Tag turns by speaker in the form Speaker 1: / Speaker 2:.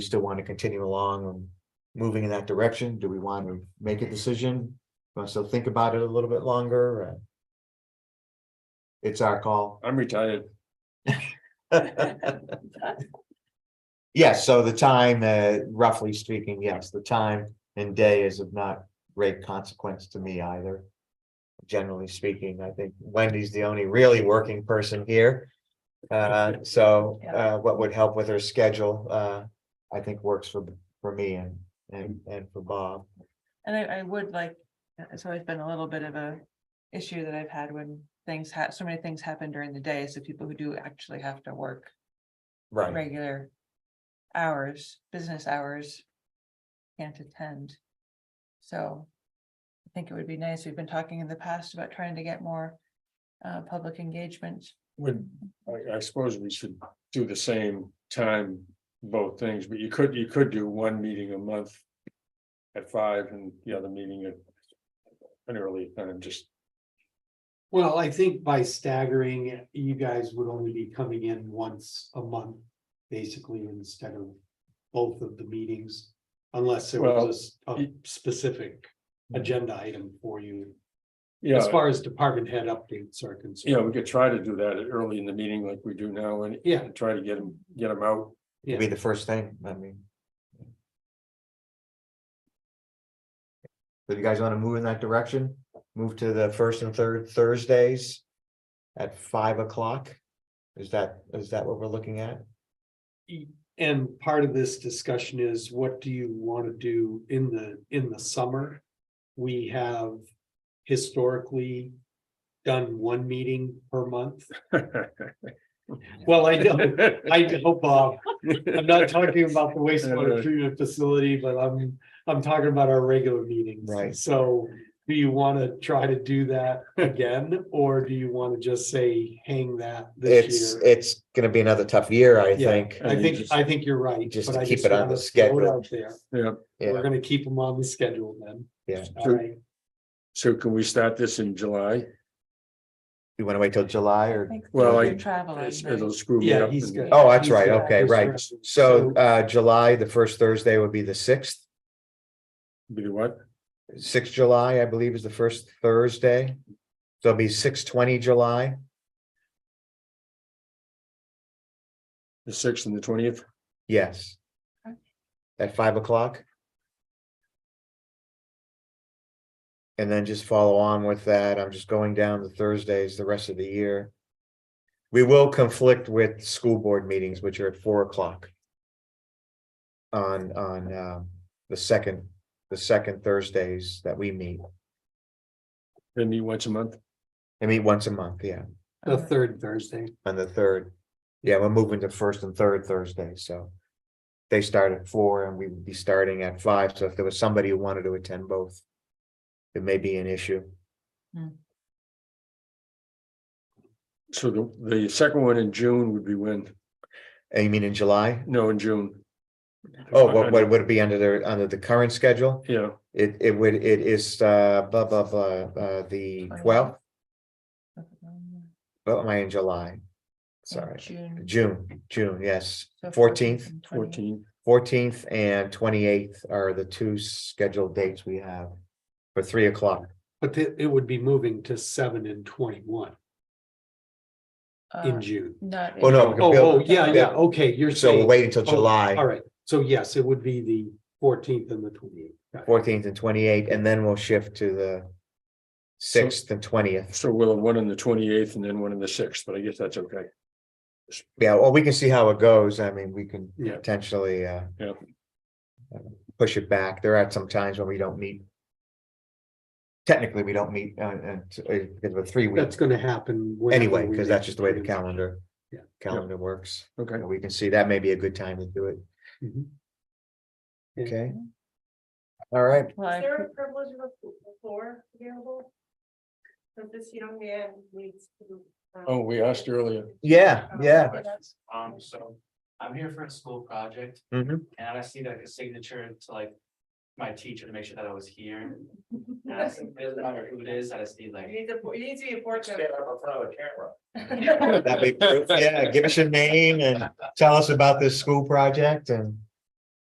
Speaker 1: still want to continue along and moving in that direction? Do we want to make a decision? Want to still think about it a little bit longer? or- It's our call.
Speaker 2: I'm retired.
Speaker 1: Yes, so the time, uh, roughly speaking, yes, the time and day is of not great consequence to me either. Generally speaking, I think Wendy's the only really working person here. Uh, so, uh, what would help with her schedule, uh, I think works for, for me and, and, and for Bob.
Speaker 3: And I, I would like, uh, it's always been a little bit of a issue that I've had when things ha, so many things happen during the day, so people who do actually have to work regular hours, business hours can't attend. So I think it would be nice, we've been talking in the past about trying to get more uh, public engagement.
Speaker 2: Would, I, I suppose we should do the same time, both things, but you could, you could do one meeting a month. At five and the other meeting at. An early time, just,
Speaker 4: Well, I think by staggering, it, you guys would only be coming in once a month, basically, instead of both of the meetings. Unless there
Speaker 2: Well,
Speaker 4: was a s- a
Speaker 2: y- Mm.
Speaker 4: specific agenda item for you, as
Speaker 2: yeah,
Speaker 4: far as department head updates are
Speaker 2: yeah,
Speaker 4: concerned.
Speaker 2: we could try to do that early in the meeting like we do now and.
Speaker 4: Yeah.
Speaker 2: and Try to get them, get them out.
Speaker 1: It'd Be the first thing, I mean. So you guys wanna move in that direction? Move to the first and third Thursdays at five o'clock? Is that, is that what we're looking at?
Speaker 4: And part of this discussion is what do you want to do in the, in the summer? We have historically done one meeting per month. Well, I know, I uh, know, Bob, I'm not talking about the wastewater treatment facility, but I'm, I'm talking about our regular meetings.
Speaker 1: Right.
Speaker 4: So do you want to try to do that again, or do you want to just say hang that
Speaker 1: It's,
Speaker 4: this year?
Speaker 1: it's gonna be another tough year, I
Speaker 4: Yeah.
Speaker 1: think.
Speaker 4: I think, I think you're right.
Speaker 1: Just
Speaker 4: but
Speaker 1: to
Speaker 4: I
Speaker 1: keep it on the
Speaker 4: wanna throw it
Speaker 1: schedule.
Speaker 4: out there.
Speaker 2: Yeah,
Speaker 4: We're
Speaker 1: Yeah,
Speaker 4: gonna keep them on the schedule then.
Speaker 1: yeah.
Speaker 4: All right.
Speaker 2: so can we start this in July?
Speaker 1: You wanna wait till July
Speaker 3: I
Speaker 1: or?
Speaker 3: think
Speaker 2: Well,
Speaker 3: you're
Speaker 2: I-
Speaker 3: Traveling.
Speaker 2: It'll
Speaker 3: right?
Speaker 2: screw me
Speaker 4: Yeah,
Speaker 2: up
Speaker 4: he's
Speaker 2: and-
Speaker 4: good.
Speaker 1: Oh, that's
Speaker 4: He's
Speaker 1: right,
Speaker 4: good.
Speaker 1: okay,
Speaker 4: He's
Speaker 1: right.
Speaker 4: good.
Speaker 1: So, uh, July, the first Thursday would be the sixth,
Speaker 2: Be what?
Speaker 1: sixth July, I believe is the first Thursday. So it'll be six twenty July.
Speaker 2: The sixth and the twentieth?
Speaker 1: Yes.
Speaker 3: Okay.
Speaker 1: At five o'clock. And then just follow on with that. I'm just going down to Thursdays the rest of the year. We will conflict with school board meetings, which are at four o'clock. On, on, um, the second, the second Thursdays that we meet.
Speaker 2: They meet once a month?
Speaker 1: I meet once a month, yeah,
Speaker 3: Oh,
Speaker 4: The third Thursday.
Speaker 1: on the third. Yeah, we're moving to first and third Thursday, so. They start at four and we would be starting at five, so if there was somebody who wanted to attend both. It may be an issue.
Speaker 2: So the, the second one in June would be when?
Speaker 1: And Uh, you mean in July?
Speaker 2: No, in June.
Speaker 1: Oh, what, what would it be under the, under the current schedule?
Speaker 2: Yeah,
Speaker 1: It, it would, it is, uh, blah, blah, blah, uh, the twelfth,
Speaker 3: oh,
Speaker 1: what am I in July? Sorry,
Speaker 3: June.
Speaker 1: June, June, yes,
Speaker 3: so
Speaker 1: 14th.
Speaker 3: and 20th.
Speaker 2: fourteen.
Speaker 1: fourteenth and twenty-eighth are the two scheduled dates we have. For three o'clock,
Speaker 4: But it, it would be moving to seven and twenty-one
Speaker 3: Uh,
Speaker 4: in June.
Speaker 3: Not.
Speaker 1: Oh,
Speaker 3: in
Speaker 1: no,
Speaker 3: June.
Speaker 1: Bill-
Speaker 4: Oh, oh, yeah, yeah, okay, you're
Speaker 1: so we'll
Speaker 4: saying,
Speaker 1: wait until
Speaker 4: oh,
Speaker 1: July.
Speaker 4: all right, so yes, it would be the fourteenth and the twenty-eighth.
Speaker 1: fourteenth and twenty-eighth, and then we'll shift to the sixth and twentieth.
Speaker 2: So we'll have one on the twenty-eighth and then one on the sixth, but I guess that's okay.
Speaker 1: Yeah, well, we can see how it goes. I mean, we can
Speaker 4: Yeah.
Speaker 1: potentially, uh,
Speaker 2: Yeah.
Speaker 1: push it back. There are some times when we don't meet. Technically, we don't meet, uh, uh, t- uh, because of a three
Speaker 4: That's
Speaker 1: weeks
Speaker 4: gonna happen. whenever
Speaker 1: anyway,
Speaker 4: we
Speaker 1: because
Speaker 4: make
Speaker 1: that's just the way the
Speaker 4: decisions.
Speaker 1: calendar,
Speaker 4: Yeah.
Speaker 1: calendar works.
Speaker 2: Okay,
Speaker 1: And We can see that may be a good time to do it.
Speaker 4: Mhm. Yeah.
Speaker 1: Okay. All right,
Speaker 3: Well,
Speaker 5: Is
Speaker 3: I-
Speaker 5: there a privilege of the floor available? So this young man needs to. um,
Speaker 2: oh, we asked earlier.
Speaker 1: yeah,
Speaker 5: um,
Speaker 1: yeah.
Speaker 6: Um, so I'm here for a school project
Speaker 1: Mhm.
Speaker 6: and I see like a signature to like my teacher to make sure that I was here. And I said, it doesn't matter who it is, I just need
Speaker 5: You
Speaker 6: like.
Speaker 5: need to, you need to be Uh, a board member.
Speaker 6: up in front of a camera.
Speaker 1: That'd be proof. Yeah, give us your name and tell us about this school project and